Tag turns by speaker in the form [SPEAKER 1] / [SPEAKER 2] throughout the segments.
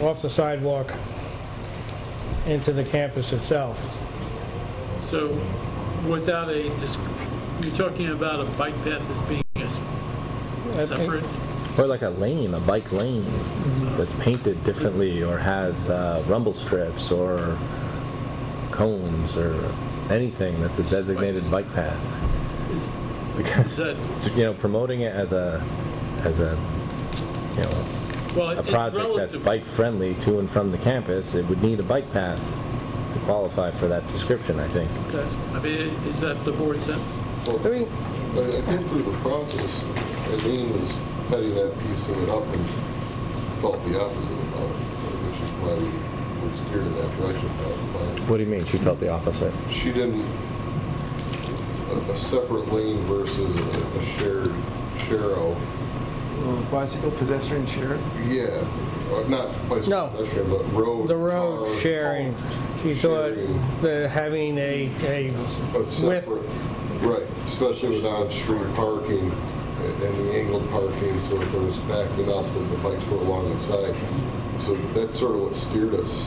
[SPEAKER 1] off the sidewalk into the campus itself.
[SPEAKER 2] So without a, dis- you're talking about a bike path as being a s-
[SPEAKER 1] I think-
[SPEAKER 2] separate?
[SPEAKER 3] Or like a lane, a bike lane that's painted differently or has uh, rumble strips or cones or anything that's a designated bike path.
[SPEAKER 2] Is is
[SPEAKER 3] Because,
[SPEAKER 2] that,
[SPEAKER 3] you know, promoting it as a, as a, you know,
[SPEAKER 2] well,
[SPEAKER 3] a
[SPEAKER 2] it's it's
[SPEAKER 3] project that's
[SPEAKER 2] relative.
[SPEAKER 3] bike friendly to and from the campus, it would need a bike path to qualify for that description, I think.
[SPEAKER 2] Okay. I mean, is that the board's sense?
[SPEAKER 3] I mean,
[SPEAKER 4] But I think through the process, Eileen was heading that piece of it up and felt the opposite about it, which is why we were steered in that direction about the plan.
[SPEAKER 3] what do you mean? She felt the opposite.
[SPEAKER 4] She didn't, a- a separate lane versus a a shared, share-out,
[SPEAKER 5] Uh, Bicycle pedestrian share?
[SPEAKER 4] yeah, or not bicycle
[SPEAKER 1] No.
[SPEAKER 4] pedestrian, but road.
[SPEAKER 1] The road
[SPEAKER 4] car,
[SPEAKER 1] sharing, she thought that having a, a
[SPEAKER 4] But
[SPEAKER 1] With-
[SPEAKER 4] separate, right, especially with on-street parking and the angled parking, so if there was backing up and the bikes were along the side. So that's sort of what steered us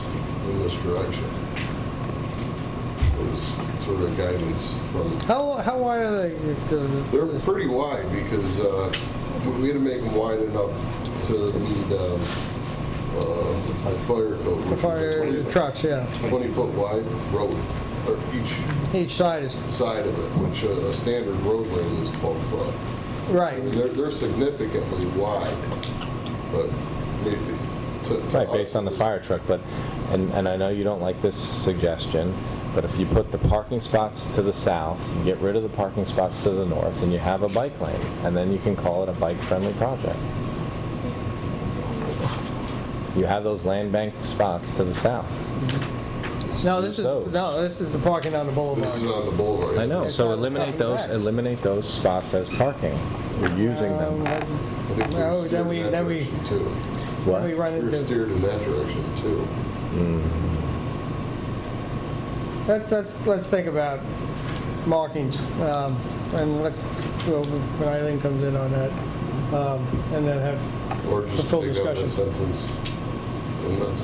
[SPEAKER 4] in this direction. It was sort of guidance from,
[SPEAKER 1] How, how wide are they? the-
[SPEAKER 4] they're pretty wide because uh, we- we had to make them wide enough to meet um, uh, the fire code. which
[SPEAKER 1] The
[SPEAKER 4] was a
[SPEAKER 1] fire
[SPEAKER 4] 20
[SPEAKER 1] trucks, yeah.
[SPEAKER 4] 20-foot wide road, or each
[SPEAKER 1] Each side is,
[SPEAKER 4] side of it, which uh, a standard road lane is 12 foot.
[SPEAKER 1] right.
[SPEAKER 4] They're, they're significantly wide, but maybe to. to
[SPEAKER 3] Right, based
[SPEAKER 4] us-
[SPEAKER 3] on the fire truck, but, and, and I know you don't like this suggestion, but if you put the parking spots to the south, you get rid of the parking spots to the north, and you have a bike lane, and then you can call it a bike-friendly project. You have those land bank spots to the south.
[SPEAKER 1] No, this is,
[SPEAKER 3] Use those.
[SPEAKER 1] no, this is the parking on the
[SPEAKER 4] This is
[SPEAKER 1] boulevard.
[SPEAKER 4] on the boulevard.
[SPEAKER 3] I know,
[SPEAKER 4] I
[SPEAKER 3] so eliminate those, eliminate those spots as parking. You're using
[SPEAKER 1] Um,
[SPEAKER 3] them.
[SPEAKER 4] think we were
[SPEAKER 1] No, then
[SPEAKER 4] steered in
[SPEAKER 1] we-
[SPEAKER 4] that
[SPEAKER 1] then we-
[SPEAKER 4] direction, too.
[SPEAKER 3] What?
[SPEAKER 1] We run
[SPEAKER 4] We were
[SPEAKER 1] into,
[SPEAKER 4] steered in that direction too.
[SPEAKER 1] let's, let's, let's think about markings, um, and let's go, when Eileen comes in on that, um, and then have,
[SPEAKER 4] Or
[SPEAKER 1] The
[SPEAKER 4] just
[SPEAKER 1] full
[SPEAKER 4] take out
[SPEAKER 1] discussion.
[SPEAKER 4] that sentence. and that's-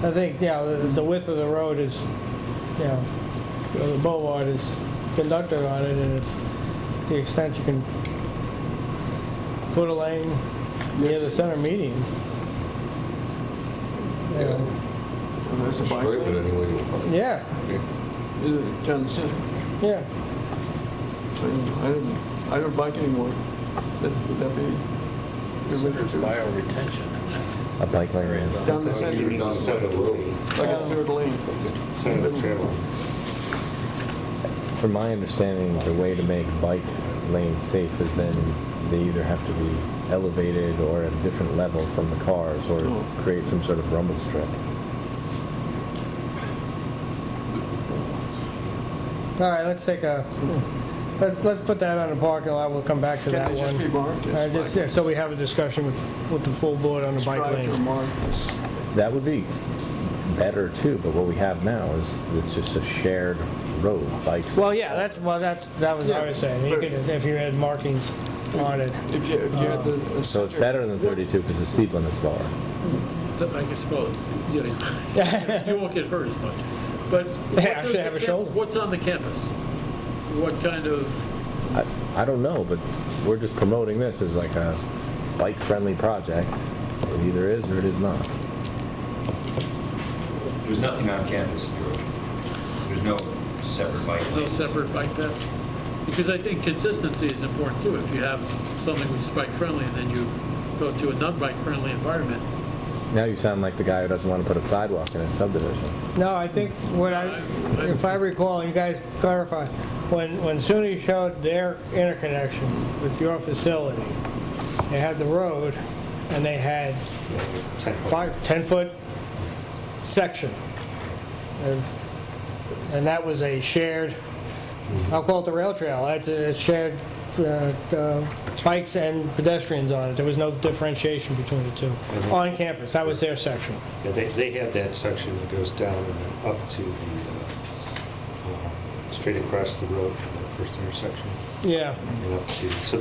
[SPEAKER 1] I think, yeah, the the width of the road is, you know, you know, the boulevard is conducted on it, and if the extent you can put a lane near the center median. you know,
[SPEAKER 5] And that's a bike
[SPEAKER 4] Stripe it
[SPEAKER 5] lane?
[SPEAKER 4] anyway. you want.
[SPEAKER 1] Yeah,
[SPEAKER 5] Yeah, Down the center.
[SPEAKER 1] yeah.
[SPEAKER 5] I didn't, I didn't, I don't bike anymore. Is that, would that be?
[SPEAKER 6] Bio retention.
[SPEAKER 3] A bike lane is,
[SPEAKER 5] Down the center,
[SPEAKER 4] You're down the side of the road.
[SPEAKER 5] like a third lane.
[SPEAKER 6] Senator Trail.
[SPEAKER 3] from my understanding, the way to make bike lanes safe is then they either have to be elevated or at a different level from the cars, or
[SPEAKER 5] Oh.
[SPEAKER 3] create some sort of rumble strip.
[SPEAKER 1] All right, let's take a, let- let's put that on the parking lot, we'll come back to
[SPEAKER 5] Can
[SPEAKER 1] that
[SPEAKER 5] it
[SPEAKER 1] one.
[SPEAKER 5] just be marked
[SPEAKER 1] All
[SPEAKER 5] as
[SPEAKER 1] right, Uh, just-
[SPEAKER 5] bike
[SPEAKER 1] yeah, So we have a discussion with, with the full board on the bike
[SPEAKER 5] Striped or
[SPEAKER 1] lane.
[SPEAKER 5] marked as-
[SPEAKER 3] That would be better too, but what we have now is it's just a shared road, bikes.
[SPEAKER 1] Well, yeah, that's, well, that's, that was what I was saying, you could, if you had markings on it.
[SPEAKER 5] If you, if you had the. the
[SPEAKER 3] So it's
[SPEAKER 5] center-
[SPEAKER 3] better than 32 because the speed limit's lower.
[SPEAKER 2] Th- I guess, well, you know, you won't get hurt as much. But. what
[SPEAKER 1] I actually
[SPEAKER 2] does the
[SPEAKER 1] have a
[SPEAKER 2] camp-
[SPEAKER 1] shoulder.
[SPEAKER 2] What's on the campus? What kind of,
[SPEAKER 3] I, I don't know, but we're just promoting this as like a bike-friendly project. It either is or it is not.
[SPEAKER 7] There's nothing on campus, George. There's no separate bike
[SPEAKER 2] no
[SPEAKER 7] lane.
[SPEAKER 2] separate bike paths? Because I think consistency is important too. If you have something which is bike friendly and then you go to a non-bike friendly environment,
[SPEAKER 3] Now you sound like the guy who doesn't want to put a sidewalk in his subdivision.
[SPEAKER 1] No, I think what I, if I recall, you guys clarify, when, when SUNY showed their interconnection with your facility, they had the road and they had five, 10-foot section. And- And that was a shared, I'll call it the rail trail, that's a shared uh, uh, bikes and pedestrians on it. There was no differentiation between the two on campus. That was their section.
[SPEAKER 6] Yeah, they, they have that section that goes down and up to the, uh, um, straight across the road, from the first intersection,
[SPEAKER 1] Yeah.
[SPEAKER 6] and up to, so